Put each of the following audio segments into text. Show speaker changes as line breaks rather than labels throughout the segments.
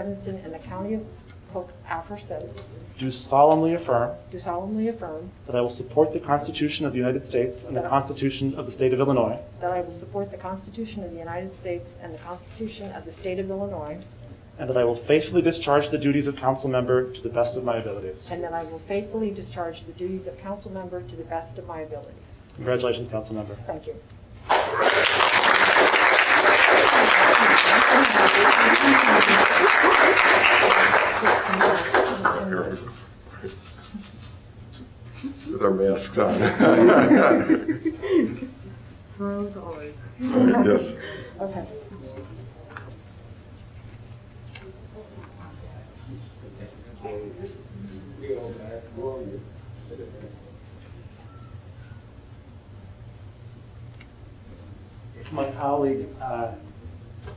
Evanston and the County of Hope aforesaid,
do solemnly affirm
do solemnly affirm
that I will support the Constitution of the United States and the Constitution of the State of Illinois,
that I will support the Constitution of the United States and the Constitution of the State of Illinois,
and that I will faithfully discharge the duties of council member to the best of my abilities.
and that I will faithfully discharge the duties of council member to the best of my ability.
Congratulations, council member.
Thank you.
With our masks on. All
Smooth always.
right, Yes.
Okay.
My colleague, uh,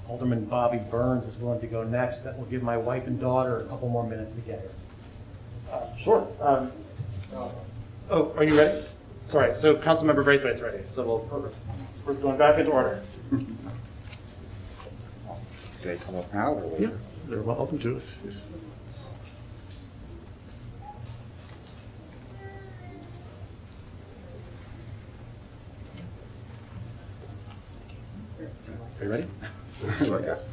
Alderman Bobby Burns, is willing to go next. That will give my wife and daughter a couple more minutes to get here.
Sure. um, Oh, are you ready? Sorry, so Councilmember Braithwaite's ready, so we'll, we're going back into order.
They come up now or
Yeah,
later?
they're welcome to. if- if- Are you ready?
I guess.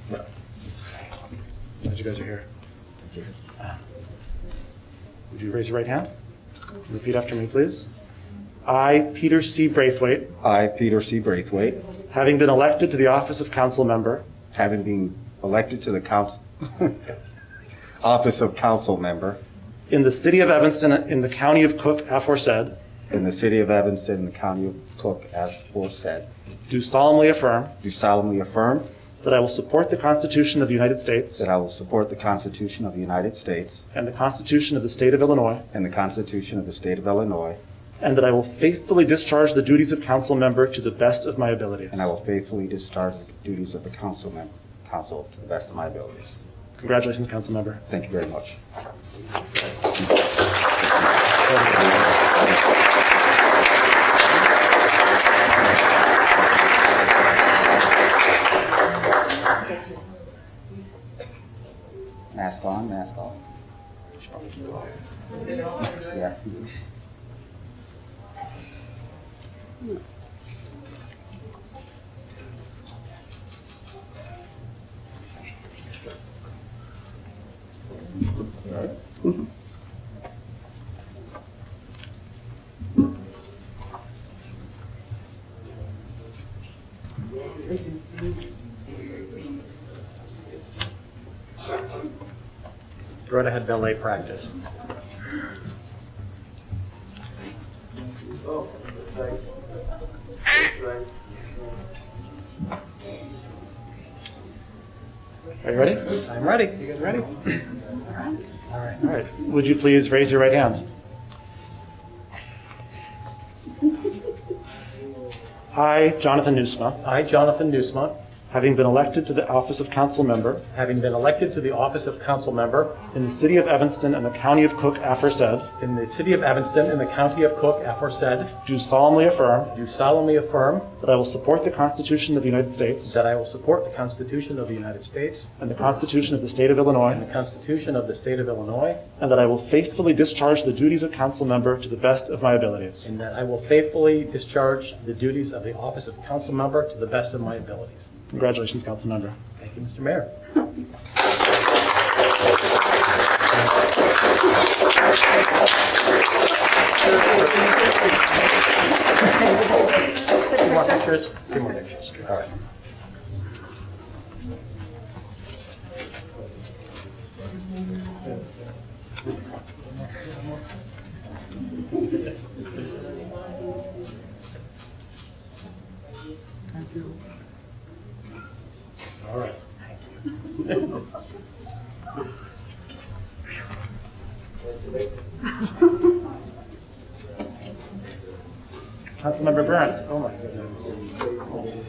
Glad you guys are here. Would you raise your right hand? Repeat after me, please. I, Peter C. Braithwaite,
I, Peter C. Braithwaite,
having been elected to the office of council member
having been elected to the council, office of council member
in the city of Evanston in the county of Cook aforesaid,
in the city of Evanston, the county of Cook, as aforesaid,
do solemnly affirm
do solemnly affirm
that I will support the Constitution of the United States
that I will support the Constitution of the United States
and the Constitution of the state of Illinois,
and the Constitution of the state of Illinois,
and that I will faithfully discharge the duties of council member to the best of my abilities.
and I will faithfully discharge the duties of the council member, council to the best of my abilities.
Congratulations, council member.
Thank you very much. Mask on, mask off. Yeah.
Go right ahead, ballet practice.
Are you ready?
I'm ready. You guys ready?
All right. Would you please raise your right hand? I, Jonathan Nusma,
I, Jonathan Nusma,
having been elected to the office of council member
having been elected to the office of council member
in the city of Evanston and the county of Cook aforesaid,
in the city of Evanston in the county of Cook, aforesaid,
do solemnly affirm
do solemnly affirm
that I will support the Constitution of the United States
that I will support the Constitution of the United States
and the Constitution of the state of Illinois,
and the Constitution of the state of Illinois,
and that I will faithfully discharge the duties of council member to the best of my abilities.
and that I will faithfully discharge the duties of the office of council member to the best of my abilities.
Congratulations, council member.
Thank you, Mr. Mayor. Two more pictures, two more pictures. All right. All right.
Councilmember Burns, oh my goodness.